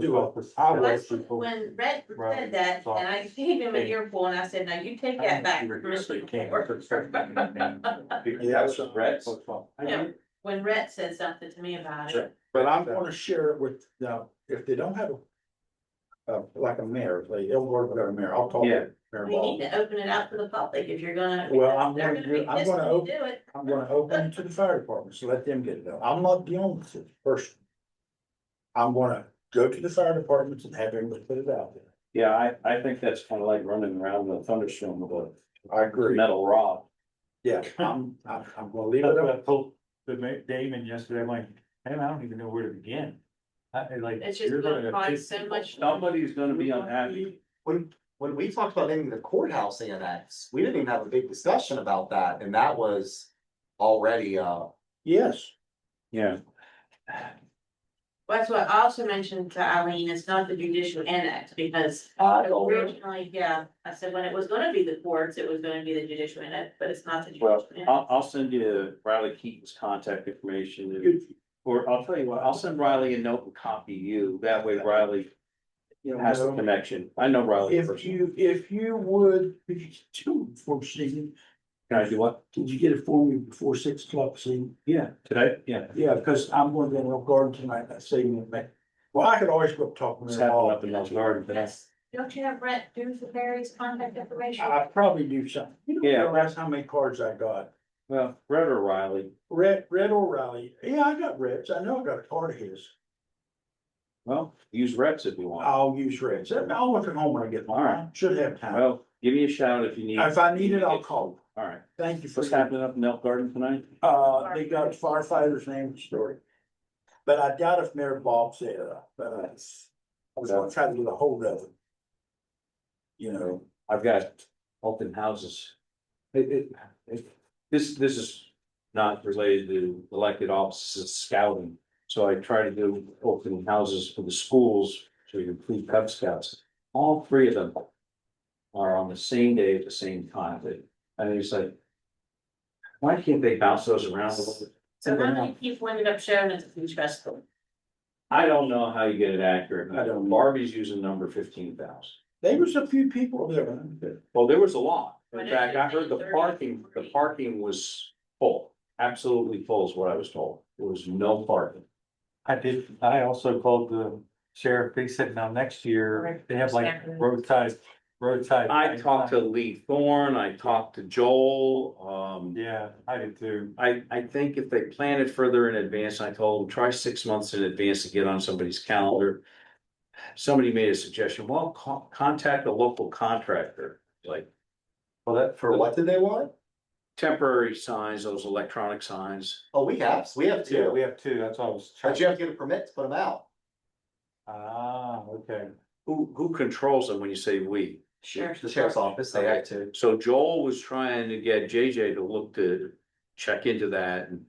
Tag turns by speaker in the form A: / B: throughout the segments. A: Do it.
B: I
A: Let's-
B: would.
C: When Red
B: Right.
C: said that, and I gave him an earful, and I said, now you take that back. Commissioner Ford."
B: Yeah, was Brett's.
C: Yeah. When Red said something to me about it,
B: But I'm
A: I'm
B: gonna,
A: gonna share it with, now, if they don't have a. Uh, like a mayor, if they don't work with a mayor, I'll talk
B: Yeah.
A: to Mayor
C: we need
A: Ball.
C: to open it up to the public if you're gonna.
A: Well, I'm
C: they're
A: gonna do-
C: be
A: I'm
C: pissed
A: gonna
C: when you
A: open-
C: Do it,
A: I'm gonna open it to the fire department, so let them get it done. I'm not the only person. I'm gonna go to the fire departments and have them put it out there.
D: Yeah, I, I think that's kind of like running around in a thunderstorm with
A: I
D: a
A: agree.
D: metal rod.
A: Yeah, I'm, I'm, I'm gonna leave
B: that's
A: it
B: what I
A: up.
B: told the ma- Damon yesterday, I'm like, man, I don't even know where to begin. I, I like.
C: It's just
B: you're
C: gonna cause
B: piss
C: so
B: people
C: much-
B: off.
D: Somebody's gonna be unhappy.
E: When, when we talked about naming the courthouse annex, we didn't even have a big discussion about that, and that was already, uh,
A: Yes,
D: Yeah.
C: that's what I also mentioned to Eileen, it's not the judicial annex, because originally, yeah, I said when it was gonna be the courts, it was gonna be the judicial annex, but it's not the
D: Well,
C: judicial.
D: I'll,
C: annex.
D: I'll send you Riley Keaton's contact information. and-
A: Good.
D: Or I'll tell you what, I'll send Riley a note and copy you. That way Riley
A: you
D: has the
A: know,
D: connection. I know Riley.
A: if
D: personally.
A: you, if you would, could you do it before season,
D: Can I do what?
A: could you get it for me before six o'clock, see?
D: Yeah, today? Yeah.
A: Yeah, because I'm going to the garden tonight, that's saving me. Well, I could always go talk to
D: What's
A: them
D: happening up in
A: all.
D: Mills Garden today?
C: Yes, don't you have Brett Doonesbury's contact information?
A: I probably do something. You don't
D: Yeah.
A: realize how many cards I got.
D: Well, Brett or Riley,
A: Red, Red O'Reilly. Yeah, I got Reds. I know I got a card of his.
D: well, use reps if you want.
A: I'll use Reds. I'll look at home when I get
D: All
A: mine.
D: right.
A: Should have time.
D: Well, give me a shout if you need.
A: Oh. If I need it, I'll call.
D: All right.
A: Thank you for
D: What's
A: that.
D: happening up in Elk Garden tonight?
A: Uh, they got firefighters' name and story. But I doubt if Mayor Bob's there, but I I was gonna try to get a hold of him. You know.
D: I've got open houses. It, it, it- this, this is not related to elected offices, it's scouting. So I try to do open houses for the schools, so you include Cub Scouts. All three of them are on the same day at the same time. They- And it's like, why can't they bounce those around a little bit?
C: So how many people ended up showing at the food festival?
D: I don't know how you get it accurate.
A: I don't know.
D: Barbie's using number fifteen thousand.
A: There was a few people there. wasn't there?
D: Well, there was a lot.
C: But
D: In
C: it
D: fact, I
C: should
D: heard
C: be
D: the
C: 30,
D: parking, the
C: 40.
D: parking was full, absolutely full is what I was told. There was no parking.
B: I did, I also called the sheriff, they said now next year,
C: Right.
B: they have like
C: Exactly.
B: roadside, roadside.
D: I talked to Lee Thorne, I talked to Joel, um,
B: Yeah, I did too.
D: I, I think if they plan it further in advance, I told them, try six months in advance to get on somebody's calendar. Somebody made a suggestion, well, co- contact a local contractor, like
B: Well, that,
E: for what did they want?
D: temporary signs, those electronic signs.
E: Oh, we have, we have
B: yeah, we
E: two,
B: have two, that's why I was.
E: but you have to get a permit to put them out.
B: Ah, okay.
D: Who, who controls them when you say we?
C: Sure.
E: The sheriff's office, they have to.
D: So Joel was trying to get JJ to look to check into that and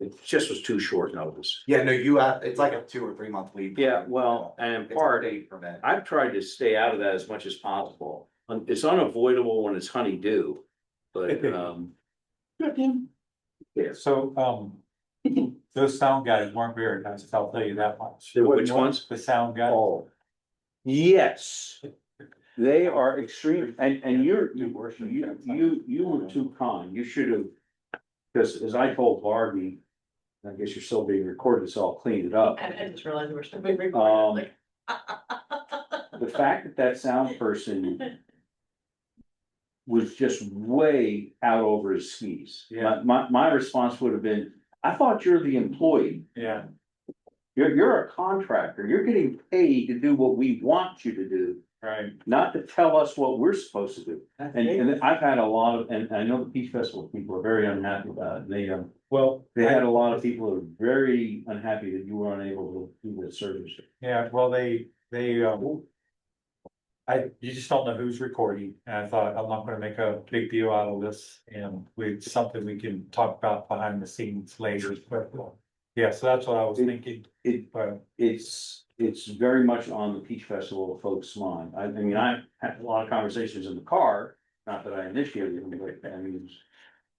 D: it just was too short notice.
E: Yeah, no, you have, it's like a two or three month lead.
D: Yeah, well, and in
E: It's a
D: part,
E: date permit.
D: I've tried to stay out of that as much as possible. Um, It's unavoidable when it's honeydew, but um,
A: Good then.
B: So, um, those sound guys weren't very nice, I'll tell you that much.
D: The which ones?
B: The sound guys.
D: oh. Yes, they are extreme and and you're
B: Do
D: you
B: worship.
D: you you you were too kind. You should have. Because as I told Barbie, I guess you're still being recorded, so I'll clean it up.
C: I I just realized we're still being
D: Um,
C: recorded.
D: the fact that that sound person was just way out over his skis.
B: Yeah.
D: My, my, my response would have been, I thought you're the employee.
B: Yeah,
D: You're, you're a contractor. You're getting paid to do what we want you to do,
B: right.
D: not to tell us what we're supposed to do. And, and I've had a lot of, and I know the Peach Festival people are very unhappy about it. They, um,
B: Well,
D: they had a lot of people who are very unhappy that you were unable to do the service.
B: Yeah, well, they, they, um. I, you just don't know who's recording, and I thought, I'm not gonna make a big deal out of this, and we, something we can talk about behind the scenes later, but. Yeah, so that's what I was thinking,
D: It,
B: but.
D: it's, it's very much on the Peach Festival folks' mind. I, I mean, I had a lot of conversations in the car, not that I initiated them, but I mean.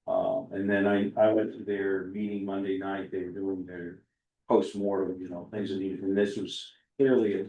D: Uh, and then I, I went to their meeting Monday night, they were doing their postmortem, you know, things that needed, and this was clearly a